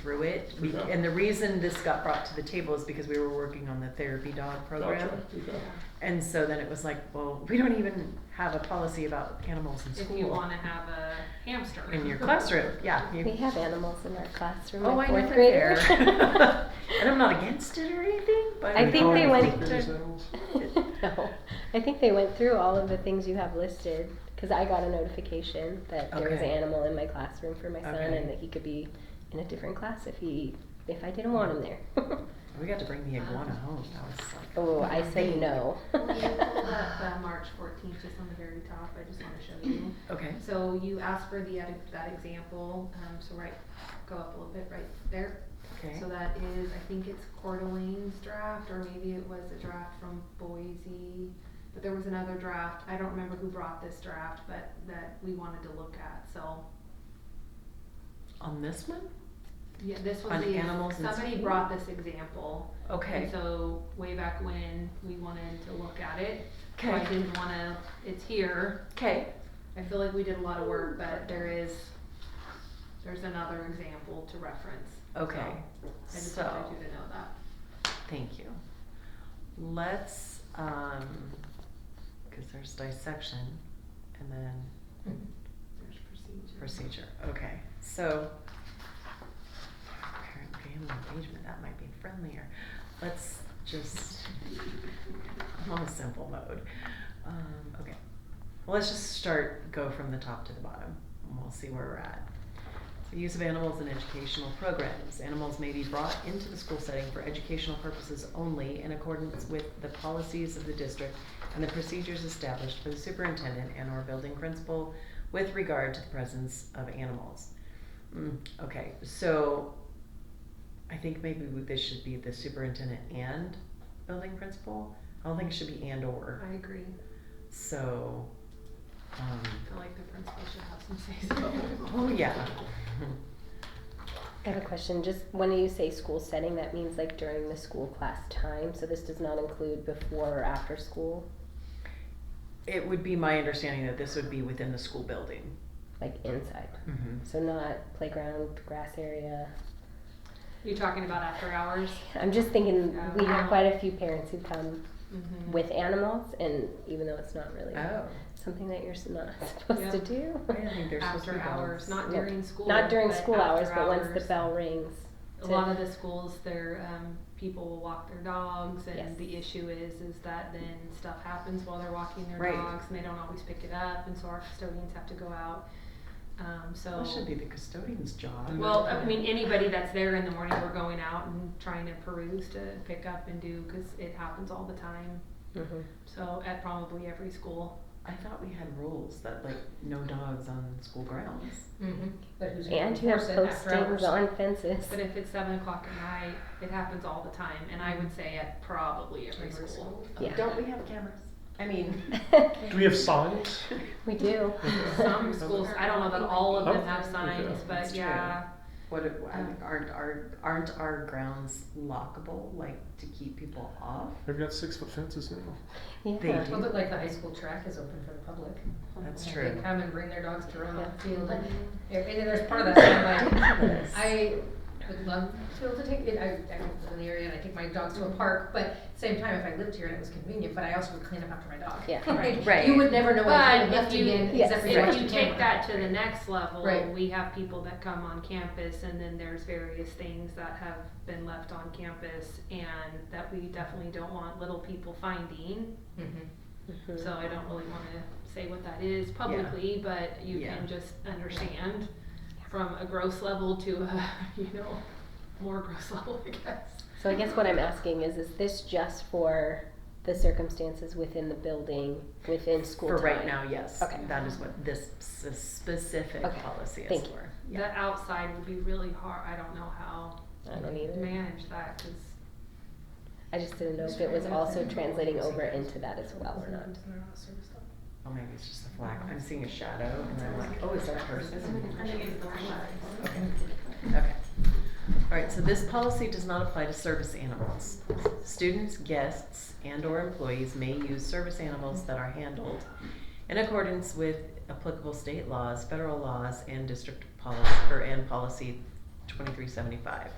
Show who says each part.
Speaker 1: through it. We,
Speaker 2: Yeah.
Speaker 1: and the reason this got brought to the table is because we were working on the therapy dog program.
Speaker 2: Gotcha, okay.
Speaker 1: And so then it was like, well, we don't even have a policy about animals in
Speaker 3: If
Speaker 1: school.
Speaker 3: you wanna have a hamster.
Speaker 1: in your classroom, yeah. you-
Speaker 4: We have animals in our classroom.
Speaker 1: oh,
Speaker 4: my
Speaker 1: I know
Speaker 4: fourth
Speaker 1: they're
Speaker 4: grader.
Speaker 1: there. and I'm not against it or anything, but
Speaker 4: I think they went-
Speaker 1: to-
Speaker 4: no, I think they went through all of the things you have listed because I got a notification that there was an
Speaker 1: Okay.
Speaker 4: animal in my classroom for my son
Speaker 1: Okay.
Speaker 4: and that he could be in a different class if he if I didn't want him there.
Speaker 1: We got to bring the iguana home. That was like,
Speaker 4: oh, I say no.
Speaker 3: When you pulled up uh, March fourteenth, just on the very top, I just wanna show you.
Speaker 1: okay,
Speaker 3: So you asked for the, ed- that example, um, so right, go up a little bit right there.
Speaker 1: okay.
Speaker 3: So that is, I think it's Coeur d'Alene's draft, or maybe it was a draft from Boise, but there was another draft, I don't remember who brought this draft, but that we wanted to look at, so.
Speaker 1: on this one,
Speaker 3: Yeah, this was
Speaker 1: On
Speaker 3: the,
Speaker 1: animals in
Speaker 3: somebody
Speaker 1: school?
Speaker 3: brought this example, and
Speaker 1: okay,
Speaker 3: so way back when, we wanted to look at it. So I
Speaker 1: okay,
Speaker 3: didn't wanna, it's here,
Speaker 1: okay.
Speaker 3: I feel like we did a lot of work, but there is, there's another example to reference.
Speaker 1: Okay,
Speaker 3: I just
Speaker 1: so,
Speaker 3: wanted you to know that.
Speaker 1: thank you. Let's, um, cause there's dissection and then
Speaker 3: There's procedure.
Speaker 1: procedure, okay, so. Parent family engagement, that might be friendlier, let's just, I'm on a simple mode, um, okay. Well, let's just start, go from the top to the bottom, and we'll see where we're at. The use of animals in educational programs. Animals may be brought into the school setting for educational purposes only in accordance with the policies of the district and the procedures established for the superintendent and or building principal with regard to the presence of animals. Mm, okay, so I think maybe we- this should be the superintendent and building principal. I don't think it should be and or,
Speaker 3: I agree,
Speaker 1: so, um,
Speaker 3: I feel like the principal should have some say so.
Speaker 1: oh yeah.
Speaker 4: I have a question. Just when you say school setting, that means like during the school class time. So this does not include before or after school,
Speaker 1: It would be my understanding that this would be within the school building.
Speaker 4: like inside.
Speaker 3: Mm-hmm.
Speaker 4: So not playground, grass area.
Speaker 3: You talking about after hours?
Speaker 4: I'm just thinking we
Speaker 3: Yeah.
Speaker 4: have quite a few parents who come
Speaker 3: Mm-hmm.
Speaker 4: with animals, and even though it's not really
Speaker 1: Oh,
Speaker 4: something that you're s- not supposed
Speaker 3: Yeah.
Speaker 4: to do,
Speaker 1: I didn't think there's supposed to
Speaker 3: After
Speaker 1: be
Speaker 3: hours,
Speaker 1: hours.
Speaker 3: not
Speaker 4: Yeah.
Speaker 3: during school.
Speaker 4: not during
Speaker 3: but
Speaker 4: school hours,
Speaker 3: after
Speaker 4: but once
Speaker 3: hours.
Speaker 4: the bell rings.
Speaker 3: A lot of the schools, their, um, people will walk their dogs and
Speaker 4: Yes.
Speaker 3: the issue is, is that then stuff happens while they're walking their
Speaker 1: Right.
Speaker 3: dogs and they don't always pick it up and so our custodians have to go out. Um, so.
Speaker 1: That should be the custodian's job.
Speaker 3: Well, I mean, anybody that's there in the morning, we're going out and trying to peruse to pick up and do, cause it happens all the time.
Speaker 4: Mhm.
Speaker 3: So at probably every school.
Speaker 1: I thought we had rules that like no dogs on school grounds.
Speaker 5: But who's gonna
Speaker 4: And you have
Speaker 5: enforce it after
Speaker 4: postings
Speaker 5: hours?
Speaker 4: on fences.
Speaker 3: But if it's seven o'clock at night, it happens all the time, and I
Speaker 1: Mm-hmm.
Speaker 3: would say at probably every
Speaker 5: Every
Speaker 3: school.
Speaker 4: Yeah.
Speaker 1: Don't we have cameras? I mean,
Speaker 2: Do we have signs?
Speaker 4: we do.
Speaker 3: Some schools, I don't know that all of them have
Speaker 2: Oh,
Speaker 3: signs,
Speaker 2: okay.
Speaker 3: but
Speaker 1: That's
Speaker 3: yeah,
Speaker 1: what if, I mean, aren't our aren't our grounds lockable, like to keep people off?
Speaker 2: They've got six foot fences now.
Speaker 4: Yeah.
Speaker 1: They do.
Speaker 5: Well, but like the high school track is open for the public.
Speaker 4: Oh,
Speaker 1: That's
Speaker 5: Like,
Speaker 1: true.
Speaker 5: They come and bring their dogs to run on
Speaker 4: Yeah.
Speaker 5: the field and, and then there's part of that, so I'm like, I would love to be able to take, it, I, I don't live in the area and I take my dogs to a park, but same time, if I lived here and it was convenient, but I also would clean up after my dog.
Speaker 4: Yeah.
Speaker 5: Right.
Speaker 1: Right.
Speaker 5: You would never know what I
Speaker 3: But
Speaker 5: had left
Speaker 3: if you-
Speaker 5: again,
Speaker 4: Yes.
Speaker 5: except for your
Speaker 3: if
Speaker 5: extra
Speaker 3: you take
Speaker 5: camera.
Speaker 3: that to the next level,
Speaker 5: Right.
Speaker 3: we have people that come on campus, and then there's various things that have been left on campus, and that we definitely don't want little people finding.
Speaker 5: Mhm.
Speaker 4: Mhm.
Speaker 3: So I don't really wanna say what that is publicly, but you
Speaker 1: Yeah.
Speaker 3: can just understand from a gross level to a, you know, more gross level, I guess.
Speaker 4: So I guess what I'm asking is, is this just for the circumstances within the building, within school
Speaker 1: For
Speaker 4: time?
Speaker 1: right now, yes.
Speaker 4: Okay.
Speaker 1: That is what this s- specific
Speaker 4: Okay.
Speaker 1: policy is
Speaker 4: Thank you.
Speaker 1: for.
Speaker 3: The outside would be really hard, I don't know how
Speaker 4: I don't
Speaker 3: to
Speaker 4: either.
Speaker 3: manage that, cause
Speaker 4: I just didn't know if it was also translating over into that as well or not.
Speaker 1: Oh, maybe it's just a flag. I'm seeing a shadow, and I'm like, oh, is that a person? Okay. All right, so this policy does not apply to service animals. Students, guests, and/or employees may use service animals that are handled in accordance with applicable state laws, federal laws, and district policy, or and policy twenty-three seventy-five.